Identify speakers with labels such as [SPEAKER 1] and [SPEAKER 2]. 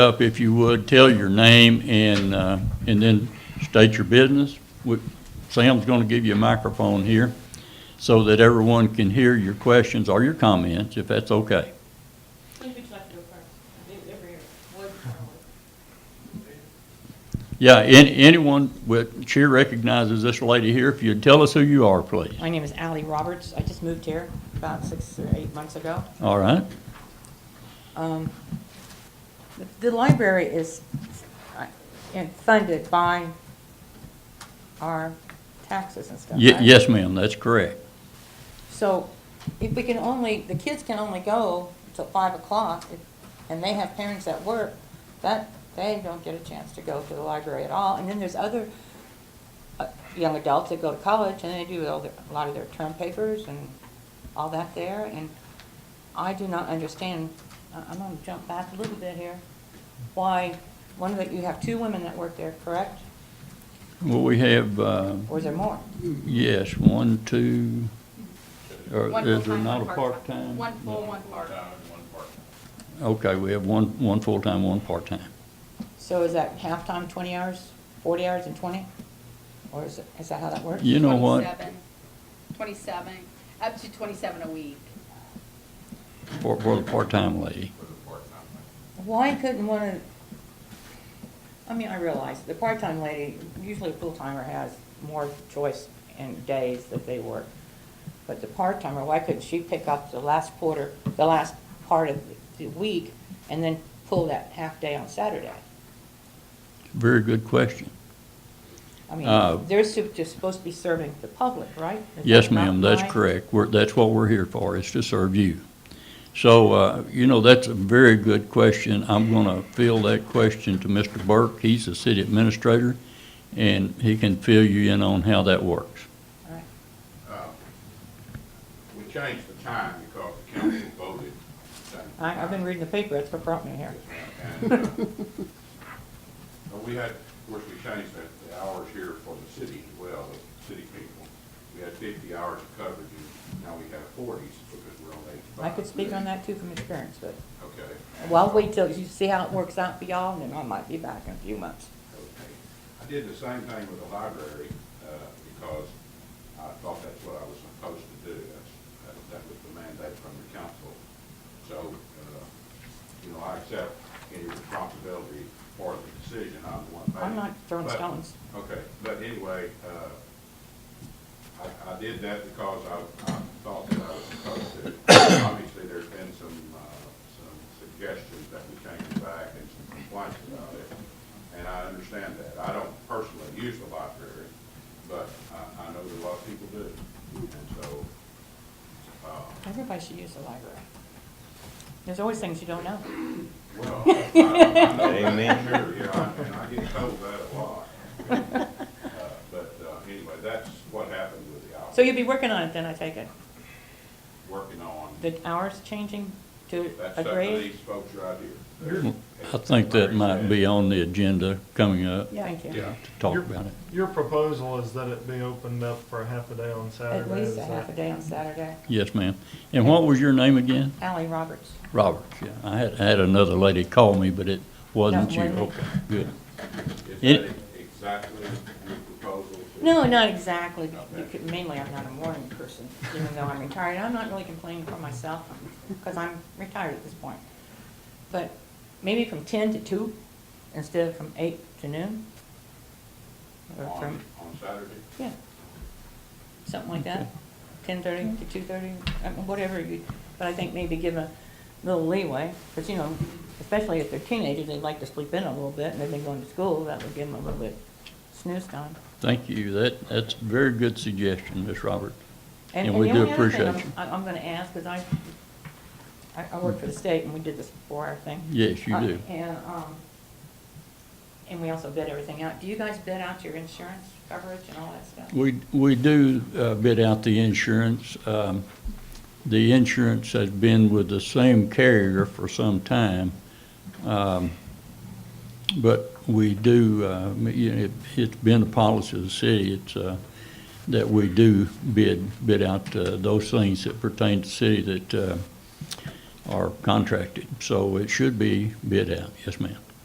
[SPEAKER 1] up, if you would, tell your name and, uh, and then state your business. We- Sam's going to give you a microphone here so that everyone can hear your questions or your comments, if that's okay.
[SPEAKER 2] Who would you like to go first? I think they're here. Wood, Charlotte.
[SPEAKER 1] Yeah, an- anyone, with- she recognizes this lady here. If you'd tell us who you are, please.
[SPEAKER 2] My name is Ally Roberts. I just moved here about six or eight months ago.
[SPEAKER 1] All right?
[SPEAKER 2] Um, the- The library is uh, and funded by our taxes and stuff,
[SPEAKER 1] Ye-
[SPEAKER 2] right?
[SPEAKER 1] Yes, ma'am, that's correct.
[SPEAKER 2] So if we can only, the kids can only go till five o'clock, if- and they have parents at work, that, they don't get a chance to go to the library at all. And then there's other uh, young adults that go to college, and they do all their, a lot of their term papers and all that there, and I do not understand, I- I'm gonna jump back a little bit here, why, one of the, you have two women that work there, correct?
[SPEAKER 1] Well, we have, uh,
[SPEAKER 2] Or is there more?
[SPEAKER 1] yes, one, two, or
[SPEAKER 3] One
[SPEAKER 1] Uh, is there
[SPEAKER 3] full-time,
[SPEAKER 1] not a
[SPEAKER 3] one
[SPEAKER 1] part-time?
[SPEAKER 3] One full, one part.
[SPEAKER 1] Okay, we have one, one full-time, one part-time.
[SPEAKER 2] So is that halftime, twenty hours, forty hours and twenty? Or is it, is that how that works?
[SPEAKER 1] You know what?
[SPEAKER 3] 27, Twenty-seven, up to twenty-seven a week.
[SPEAKER 1] For, for the part-time lady.
[SPEAKER 2] Why couldn't one of, I mean, I realize, the part-time lady, usually a full-timer has more choice and days that they work. But the part-timer, why couldn't she pick up the last quarter, the last part of the week, and then pull that half-day on Saturday?
[SPEAKER 1] Very good question.
[SPEAKER 2] I
[SPEAKER 1] Uh,
[SPEAKER 2] mean, they're sup- just supposed to be serving the public, right? Is
[SPEAKER 1] Yes,
[SPEAKER 2] that not
[SPEAKER 1] ma'am, that's
[SPEAKER 2] right?
[SPEAKER 1] correct. We're, that's what we're here for, is to serve you. So, uh, you know, that's a very good question. I'm gonna field that question to Mr. Burke. He's the city administrator, and he can fill you in on how that works.
[SPEAKER 2] All right.
[SPEAKER 4] Uh, We changed the time because the council voted.
[SPEAKER 2] I, I've been reading the paper, that's what brought me here.
[SPEAKER 4] And, uh, but We had, of course, we changed the- the hours here for the city as well, the city people. We had fifty hours of coverage, and now we have forties because we're on eight.
[SPEAKER 2] I could speak on that too from experience, but,
[SPEAKER 4] Okay.
[SPEAKER 2] well, I'll wait till you see how it works out for y'all, and then I might be back in a few months.
[SPEAKER 4] Okay. I did the same thing with the library, uh, because I thought that's what I was supposed to do. That's, that, that was the mandate from the council. So, uh, you know, I accept any responsibility for the decision I'm the one making.
[SPEAKER 2] I'm not throwing
[SPEAKER 4] But-
[SPEAKER 2] stones.
[SPEAKER 4] Okay, but anyway, uh, I, I did that because I, I thought that I was supposed to. Obviously, there's been some, uh, some suggestions that we change it back and some complaints about it, and I understand that. I don't personally use the library, but I, I know that a lot of people do, and so, uh,
[SPEAKER 2] Everybody should use the library. There's always things you don't know.
[SPEAKER 4] well, I, I know that,
[SPEAKER 5] Amen.
[SPEAKER 4] sure, yeah, I- and I get told that a lot. Uh, But, uh, anyway, that's what happened with the hours.
[SPEAKER 2] So you'll be working on it then, I take it?
[SPEAKER 4] working on.
[SPEAKER 2] The hours changing to
[SPEAKER 4] That's
[SPEAKER 2] a
[SPEAKER 4] up to
[SPEAKER 2] grade?
[SPEAKER 4] these folks right here.
[SPEAKER 1] I think that might be on the agenda coming up, to
[SPEAKER 2] Yeah, Thank you.
[SPEAKER 4] Yeah.
[SPEAKER 1] talk
[SPEAKER 6] Your-
[SPEAKER 1] about it.
[SPEAKER 6] Your proposal is that it be opened up for a half a day on Saturday.
[SPEAKER 2] At least
[SPEAKER 6] is
[SPEAKER 2] a half a
[SPEAKER 6] that-
[SPEAKER 2] day on Saturday.
[SPEAKER 1] Yes, ma'am. And what was your name again?
[SPEAKER 2] Ally Roberts.
[SPEAKER 1] Roberts, yeah. I had, I had another lady call me, but it wasn't
[SPEAKER 2] No,
[SPEAKER 1] you.
[SPEAKER 2] wasn't.
[SPEAKER 1] Okay, good.
[SPEAKER 4] Is
[SPEAKER 1] It-
[SPEAKER 4] that exactly your proposal? to-
[SPEAKER 2] No, not exactly. You could- Mainly, I'm not a morning person, even though I'm retired. I'm not really complaining for myself, because I'm retired at this point. But maybe from ten to two, instead of from eight to noon? Or
[SPEAKER 4] On,
[SPEAKER 2] from,
[SPEAKER 4] on Saturday?
[SPEAKER 2] yeah, something like that, ten-thirty to two-thirty, whatever you, but I think maybe give a little leeway, because, you know, especially if they're teenagers, they'd like to sleep in a little bit, and they've been going to school, that would give them a little bit snooze time.
[SPEAKER 1] Thank you. That, that's a very good suggestion, Miss Roberts.
[SPEAKER 2] And,
[SPEAKER 1] And
[SPEAKER 2] and
[SPEAKER 1] we
[SPEAKER 2] the
[SPEAKER 1] do
[SPEAKER 2] only other thing
[SPEAKER 1] appreciate
[SPEAKER 2] I'm,
[SPEAKER 1] you.
[SPEAKER 2] I- I'm gonna ask, because I, I, I work for the state and we did this four-hour thing.
[SPEAKER 1] Yes, you
[SPEAKER 2] Uh,
[SPEAKER 1] do.
[SPEAKER 2] And, um, and we also bid everything out. Do you guys bid out your insurance coverage and all that stuff?
[SPEAKER 1] We, we do uh, bid out the insurance. Um, The insurance has been with the same carrier for some time. Um, But we do, uh, you know, it- it's been the policy of the city, it's, uh, that we do bid, bid out uh, those things that pertain to city that uh, are contracted. So it should be bid out, yes, ma'am.